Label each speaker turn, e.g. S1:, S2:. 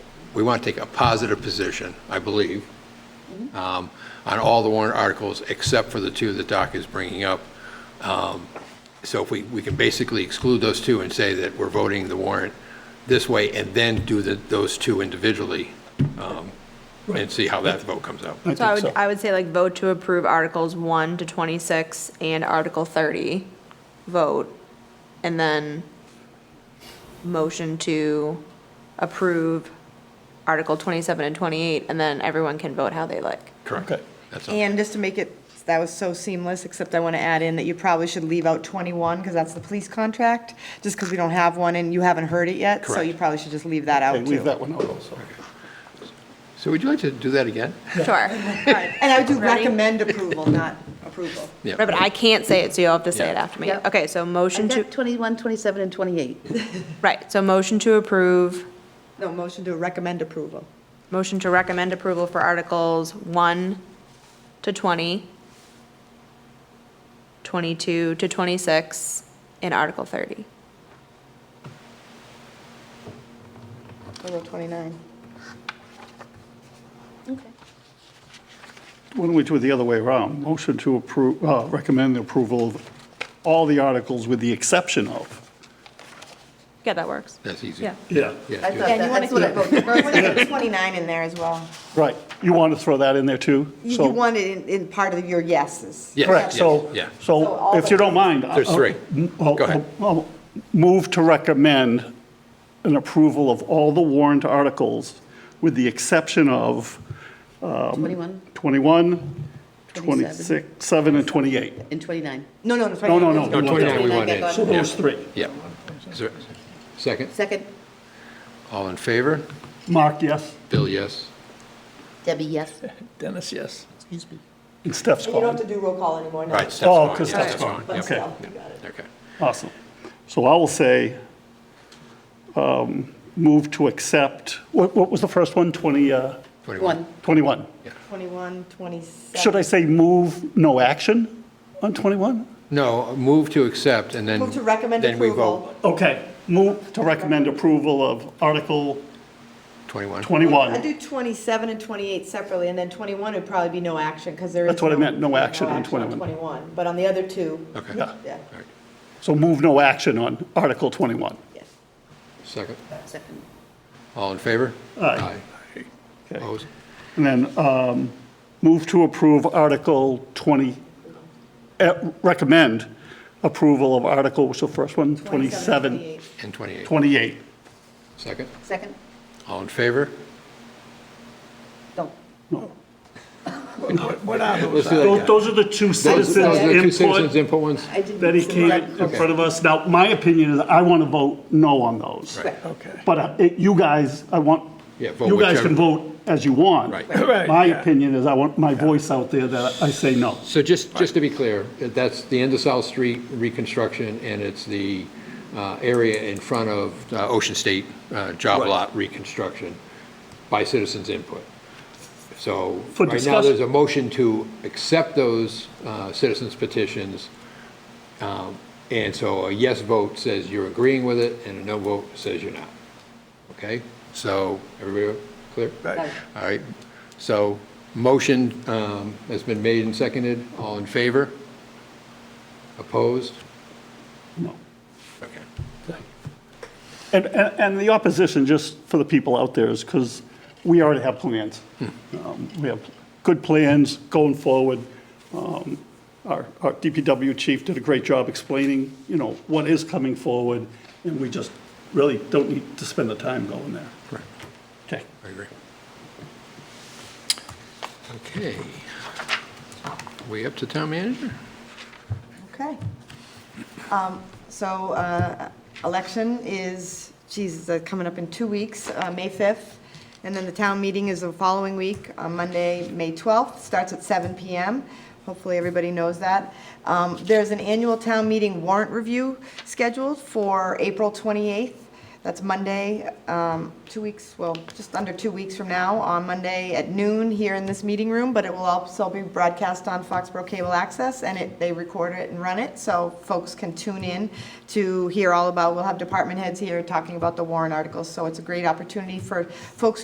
S1: we want to take a positive position, I believe, um, on all the warrant articles except for the two that Doc is bringing up. Um, So if we, we can basically exclude those two and say that we're voting the warrant this way and then do the, those two individually um, and see how that vote comes out.
S2: So I would, I would say like vote to approve Articles 1 to 26 and Article 30, vote, and then motion to approve Article 27 and 28, and then everyone can vote how they like.
S1: Correct.
S3: Okay.
S1: That's all.
S4: And just to make it, that was so seamless, except I want to add in that you probably should leave out 21, because that's the police contract, just because we don't have one and you haven't heard it yet, so you
S1: Correct.
S4: probably should just leave that out,
S3: Okay,
S4: too.
S3: leave that one out also.
S1: So would you like to do that again?
S2: Sure.
S4: Right, And I would do
S2: Ready?
S4: recommend approval, not approval.
S1: Yeah.
S2: Right, But I can't say it, so you'll have to say it
S1: Yeah.
S2: after me.
S5: Yep.
S2: Okay, so motion
S5: I've
S2: to,
S5: got 21, 27, and 28.
S2: right, so motion to approve,
S4: No, motion to recommend approval.
S2: motion to recommend approval for Articles 1 to 20, 22 to 26, and Article 30.
S4: I wrote 29.
S3: Why don't we do it the other way around? Motion to approve, uh, recommend the approval of all the articles with the exception of.
S2: Yeah, that works.
S1: That's easy.
S2: Yeah.
S3: Yeah.
S1: Yeah,
S5: I
S1: do that.
S5: thought
S4: Yeah, and you
S5: that-
S4: want
S5: that's what I voted.
S4: to keep 29 in there as well.
S3: Right. You want to throw that in there too?
S4: You
S3: So-
S4: you want it in, in part of your yeses.
S1: Yes,
S3: Correct, so,
S1: yes, Yeah.
S4: So all
S3: so if you
S4: the-
S3: don't mind. uh,
S1: There's
S3: I'll-
S1: three.
S3: I'll-
S1: Go ahead.
S3: I'll uh, um, Move to recommend an approval of all the warrant articles with the exception of um,
S5: 21
S3: 21,
S5: 27.
S3: 26, 7, and 28.
S5: and 29.
S4: No, no, no.
S3: No, no, no.
S1: No, 29 we want
S5: Okay,
S1: in.
S5: go on.
S3: So those three.
S1: Yeah. Is there- Second,
S5: Second,
S1: all in favor?
S3: Mark, yes?
S1: Bill, yes.
S5: Debbie, yes.
S6: Dennis, yes. Excuse me.
S3: And Steph's
S4: You don't have
S3: gone.
S4: to do roll call anymore now.
S1: Right, Steph's
S3: Oh,
S1: gone.
S3: 'cause
S1: Yeah,
S3: Steph's
S1: Steph's
S3: gone.
S1: gone.
S4: But
S3: Okay.
S4: still, you got it.
S1: Okay.
S3: Awesome. So I will say, um, move to accept, what what was the first one? 20, uh,
S5: One.
S3: 21?
S4: 21, 27.
S3: Should I say move no action on 21?
S1: No, move to accept and then.
S4: Move to recommend
S1: Then we
S4: approval.
S1: vote
S3: Okay, move to recommend approval of Article
S1: 21.
S4: I'd
S3: 21.
S4: do 27 and 28 separately, and then 21 would probably be no action, because there is.
S3: That's what I meant, no action on 21.
S4: 21, but on the other two,
S1: Okay.
S3: Yeah,
S4: yeah,
S1: All right.
S3: so move no action on Article 21.
S4: yes.
S1: Second,
S5: Second.
S1: all in favor?
S3: Aye. Okay.
S1: Opposed?
S3: And then um, move to approve Article 20, eh, recommend approval of Article, what's the first one? 27,
S4: 28.
S1: And 28.
S3: 28.
S1: Second,
S5: Second,
S1: all in favor?
S5: don't.
S6: What are those?
S1: Let's do that
S3: Those
S1: again.
S3: those are the two
S1: Those-
S3: citizens
S1: those are the two citizens
S3: input
S1: input ones?
S5: I didn't-
S3: that he came in front of us. Now, my opinion is I want to vote no on those.
S1: Right.
S6: Okay.
S3: But uh, it- you guys, I want,
S1: Yeah, vote
S3: you guys
S1: whichever-
S3: can vote as you want.
S1: Right.
S6: Right,
S3: My
S6: yeah.
S3: opinion is I want my voice out there that I say no.
S1: So just, just to be clear, that's the end of South Street reconstruction, and it's the uh, area in front of uh, Ocean State uh, Job
S6: Right.
S1: Lot reconstruction by citizens' input. So
S3: For
S1: right now,
S3: discussion.
S1: there's a motion to accept those uh, citizens' petitions, Um, and so a yes vote says you're agreeing with it, and a no vote says you're not. Okay? So, everybody clear?
S6: Right.
S1: All right, so motion um, has been made and seconded. All in favor? Opposed?
S3: No.
S1: Okay.
S3: And, and and the opposition, just for the people out there, is because we already have plans. Um, We have good plans going forward. Um, Our, our DPW chief did a great job explaining, you know, what is coming forward, and we just really don't need to spend the time going there.
S1: Correct.
S3: Okay.
S1: I agree. Okay. We up to town manager?
S4: Okay. Um, So uh, election is, geez, it's coming up in two weeks, uh, May 5th. And then the town meeting is the following week, on Monday, May 12th, starts at 7 PM. Hopefully, everybody knows that. Um, There's an annual town meeting warrant review scheduled for April 28th. That's Monday, um, two weeks, well, just under two weeks from now, on Monday at noon here in this meeting room, but it will also be broadcast on Foxborough Cable Access, and it, they record it and run it, so folks can tune in to hear all about, we'll have department heads here talking about the warrant articles, so it's a great opportunity for folks